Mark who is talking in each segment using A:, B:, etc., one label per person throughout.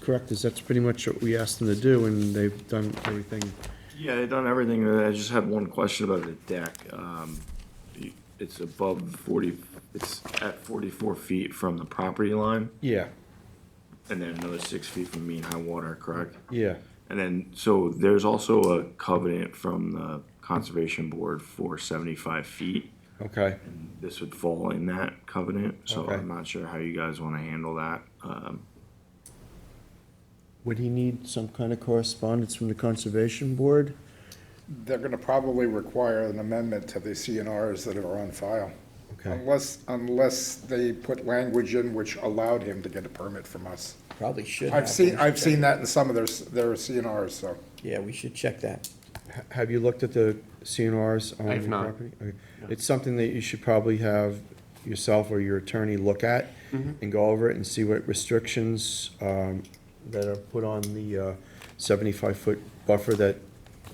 A: correct, is that's pretty much what we asked them to do, and they've done everything.
B: Yeah, they've done everything. I just had one question about the deck. Um, It's above 40, it's at 44 feet from the property line,
A: Yeah,
B: and then another six feet from mean high water, correct?
A: yeah,
B: And then, so there's also a covenant from the Conservation Board for 75 feet.
A: okay.
B: This would fall in that covenant, so
A: Okay.
B: I'm not sure how you guys want to handle that. Um,
A: Would he need some kind of correspondence from the Conservation Board?
C: They're gonna probably require an amendment to the CNRs that are on file.
A: Okay,
C: Unless, unless they put language in which allowed him to get a permit from us.
D: Probably should.
C: I've
D: have.
C: seen, I've seen that in some of their, s- their CNRs, so.
D: Yeah, we should check that.
A: H- have you looked at the CNRs on
E: I have
A: your
E: not.
A: property? Okay. It's something that you should probably have yourself or your attorney look at
E: Mm-hmm.
A: and go over it and see what restrictions, um, that are put on the, uh, seventy-five foot buffer that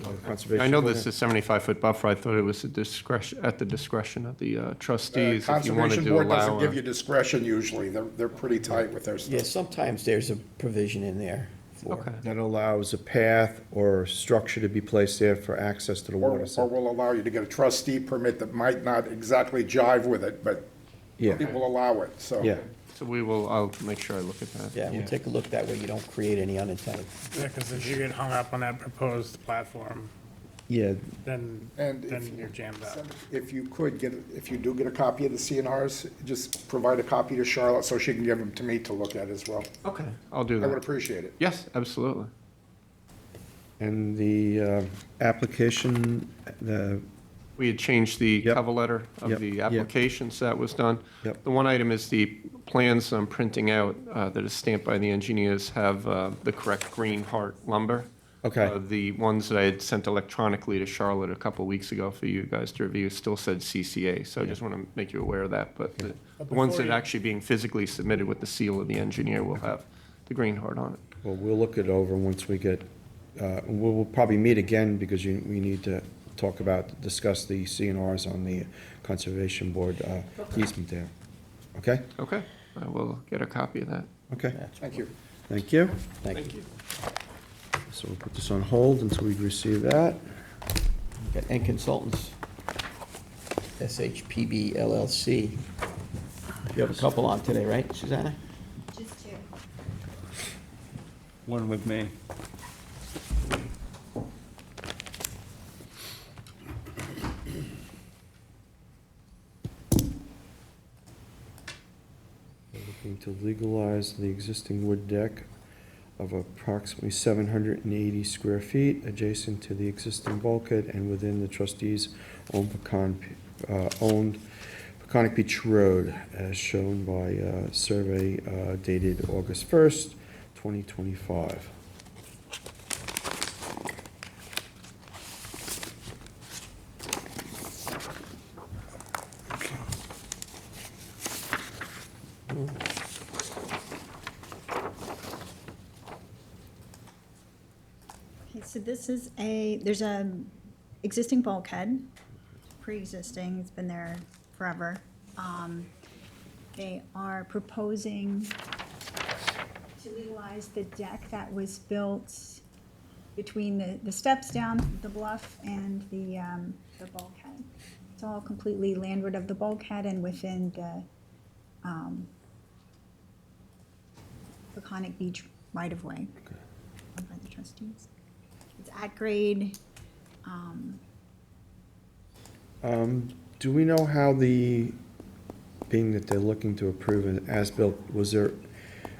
A: uh, Conservation.
E: I know
A: Board
E: this
A: had.
E: is 75-foot buffer. I thought it was a discretion, at the discretion of the uh, trustees if you wanted
C: Conservation
E: to
C: Board doesn't
E: allow.
C: give you
E: a-
C: discretion usually. They're, they're pretty tight with their
D: Yeah,
C: stuff.
D: sometimes there's a provision in there for,
E: Okay.
A: That allows a path or structure to be placed there for access to the
C: Or,
A: water.
C: or
A: supply.
C: will allow you to get a trustee permit that might not exactly jive with it, but
A: Yeah.
C: people allow it, so.
A: Yeah,
E: So we will, I'll make sure I look at that.
D: yeah, we'll take a look. That way you don't create any unintended.
F: Yeah, because if you get hung up on that proposed platform,
A: yeah,
F: then,
C: And if
F: then
C: you-
F: you're jammed up.
C: If you could get, if you do get a copy of the CNRs, just provide a copy to Charlotte so she can give them to me to look at as well.
E: Okay, I'll do
C: I would
E: that.
C: appreciate it.
E: Yes, absolutely.
A: and the uh, application, the,
E: We had changed the
A: Yep.
E: cover letter
A: Yep,
E: of the
A: yep.
E: application, so that was done.
A: Yep.
E: The one item is the plans I'm printing out uh, that is stamped by the engineers have uh, the correct green heart lumber.
A: Okay.
E: Uh, The ones that I had sent electronically to Charlotte a couple weeks ago for you guys to review still said CCA, so I just want to make you aware of that. But the the ones
F: before
E: that
F: you-
E: are actually being physically submitted with the seal of the engineer will have the green heart on it.
A: well, we'll look it over once we get, uh, we'll we'll probably meet again because you, we need to talk about, discuss the CNRs on the Conservation Board uh, easement there. Okay?
E: Okay, I will get a copy of that.
A: Okay,
C: Thank you.
A: thank you.
D: Thank you.
A: So we'll put this on hold until we receive that.
D: Okay, And consultants. SHPB LLC. You have a couple on today, right, Susanna?
G: Just two.
H: one with me.
A: They're Looking to legalize the existing wood deck of approximately seven hundred and eighty square feet adjacent to the existing bulkhead and within the trustees' own pecan, uh, owned Peconic Beach Road as shown by, uh, survey, uh, dated August first, twenty twenty-five.
G: Okay, so this is a, there's a existing bulkhead, pre-existing, it's been there forever. Um, They are proposing to legalize the deck that was built between the, the steps down the bluff and the, um, the bulkhead. It's all completely landward of the bulkhead and within the, um, Peconic Beach right-of-way owned by the trustees. It's at grade, um,
A: Um, do we know how the, being that they're looking to approve an as-built, was there,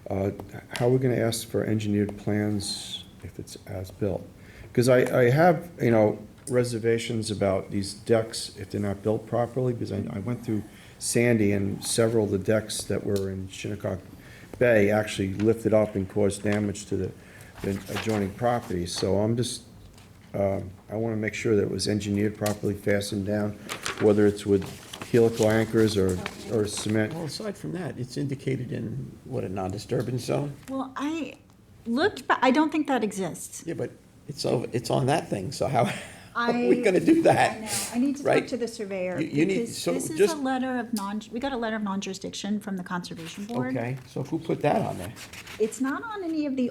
A: uh, how are we gonna ask for engineered plans if it's as-built? Because I, I have, you know, reservations about these decks if they're not built properly, because I, I went through Sandy and several of the decks that were in Shinnecock Bay actually lifted up and caused damage to the the adjoining property, so I'm just um, I want to make sure that it was engineered properly, fastened down, whether it's with helical anchors or, or cement.
D: Well, aside from that, it's indicated in, what, a non-disturbance zone?
G: well, I looked, but I don't think that exists.
D: Yeah, but it's over, it's on that thing, so how, how are we
G: I-
D: gonna do
G: I
D: that?
G: know. I need to talk
D: Right?
G: to the surveyor.
D: You- you need-
G: because
D: so
G: This is a
D: just-
G: letter of non, we got a letter of non-jurisdiction from the Conservation Board.
D: Okay, so who put that on there?
G: It's not on any of the